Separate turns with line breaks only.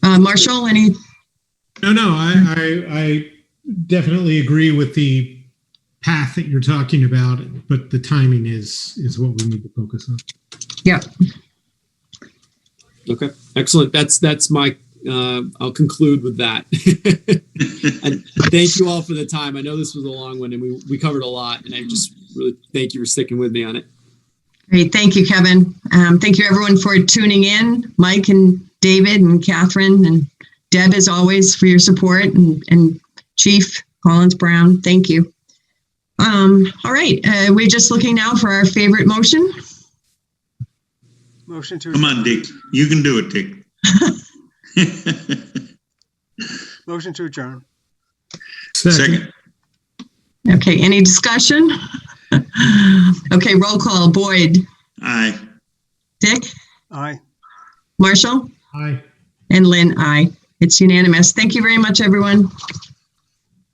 Uh, Marshall, any,
No, no, I, I, I definitely agree with the path that you're talking about, but the timing is, is what we need to focus on.
Okay, excellent. That's that's my. Uh, I'll conclude with that. and thank you all for the time. I know this was a long one, and we we covered a lot. And I just really thank you for sticking with me on it.
great, thank you, Kevin. Um, thank you everyone for tuning in, Mike and David and Catherine and Deb as always for your support and, and Chief Collins Brown, thank you. Um, all right, uh, we're just looking now for our favorite motion.
Motion to,
Come on, Dick. You can do it, Dick.
motion to adjourn.
Second,
Okay, any discussion? Okay, roll call, Boyd,
aye.
Dick,
Aye.
Marshall,
Aye.
and Lynn, I. It's unanimous. Thank you very much, everyone.